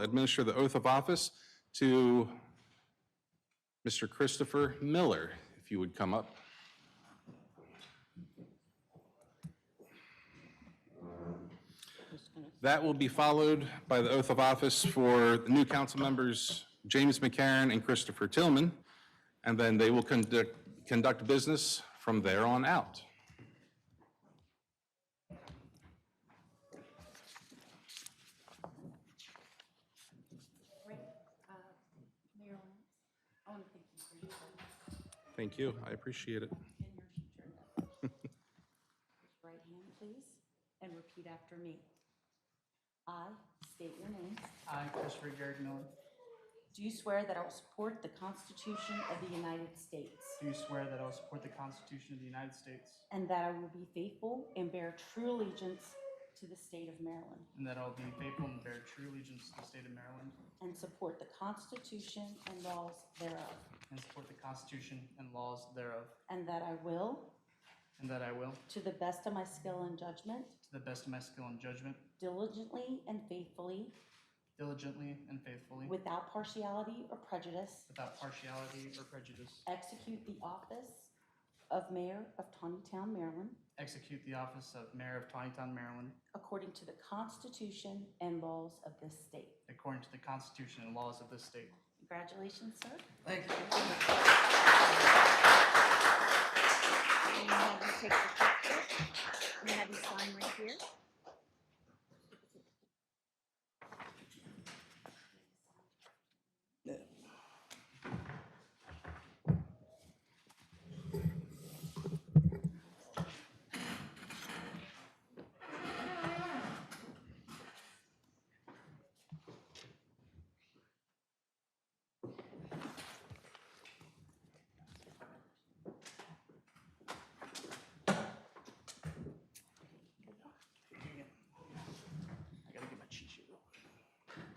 administer the oath of office to Mr. Christopher Miller, if you would come up. That will be followed by the oath of office for the new council members, James McCarron and Christopher Tillman, and then they will conduct, conduct business from there on out. Great. Uh, Mayor Lawrence, I want to thank you for your service Thank you, I appreciate it. and your future endeavors. Raise your Right hand, please, and repeat after me. I state your name. I, Christopher Jared Miller, Do you swear that I will support the Constitution of the United States do swear that I will support the Constitution of the United States and that I will be faithful and bear true allegiance to the state of Maryland and that I will be faithful and bear true allegiance to the state of Maryland and support the Constitution and laws thereof, and support the Constitution and laws thereof, and that I will, and that I will, to the best of my skill and judgment, to the best of my skill and judgment, diligently and faithfully, diligently and faithfully, Without partiality or prejudice, without partiality or prejudice, execute the office of Mayor of Tawnytown, Maryland, execute the office of Mayor of Tawnytown, Maryland, according to the Constitution and laws of this state. according to the Constitution and laws of this state. Congratulations, sir. Thank you. I'm gonna have you take the picture. I'm gonna have you sign right here. I gotta get my cheat sheet real quick.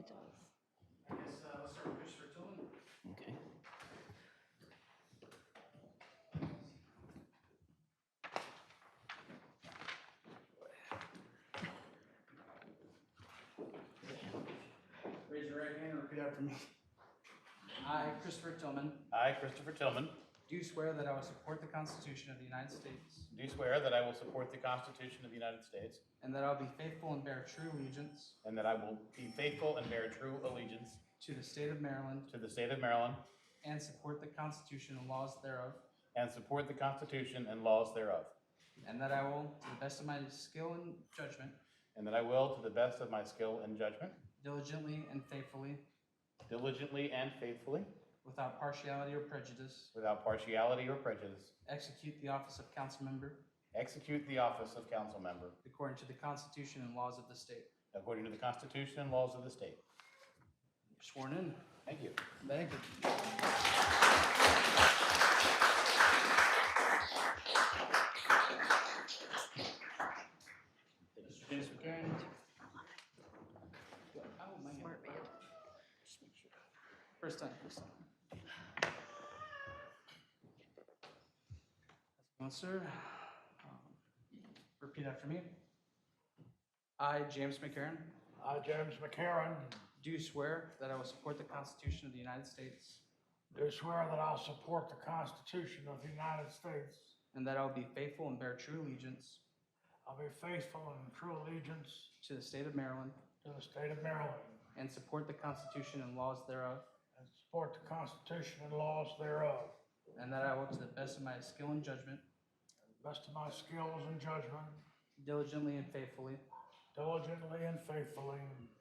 I guess, uh, let's start with Christopher Tillman. Okay. Raise your right hand and repeat after me. I, Christopher Tillman, I, Christopher Tillman, do swear that I will support the Constitution of the United States do swear that I will support the Constitution of the United States and that I will be faithful and bear true allegiance and that I will be faithful and bear true allegiance to the state of Maryland to the state of Maryland and support the Constitution and laws thereof, and support the Constitution and laws thereof, and that I will, to the best of my skill and judgment, and that I will, to the best of my skill and judgment, diligently and faithfully, diligently and faithfully, without partiality or prejudice, without partiality or prejudice, execute the office of council member execute the office of council member according to the Constitution and laws of the state. according to the Constitution and laws of the state. You're Sworn in. Thank you. Thank you. Mr. James McCarron. Oh, man. First time, first time. Well, sir, um, repeat after me. I, James McCarron, I, James McCarron, do swear that I will support the Constitution of the United States do swear that I'll support the Constitution of the United States. and that I will be faithful and bear true allegiance I'll be faithful and true allegiance to the state of Maryland to the state of Maryland and support the Constitution and laws thereof, and support the Constitution and laws thereof. and that I will, to the best of my skill and judgment, to the Best of my skills and judgment, diligently and faithfully, diligently and faithfully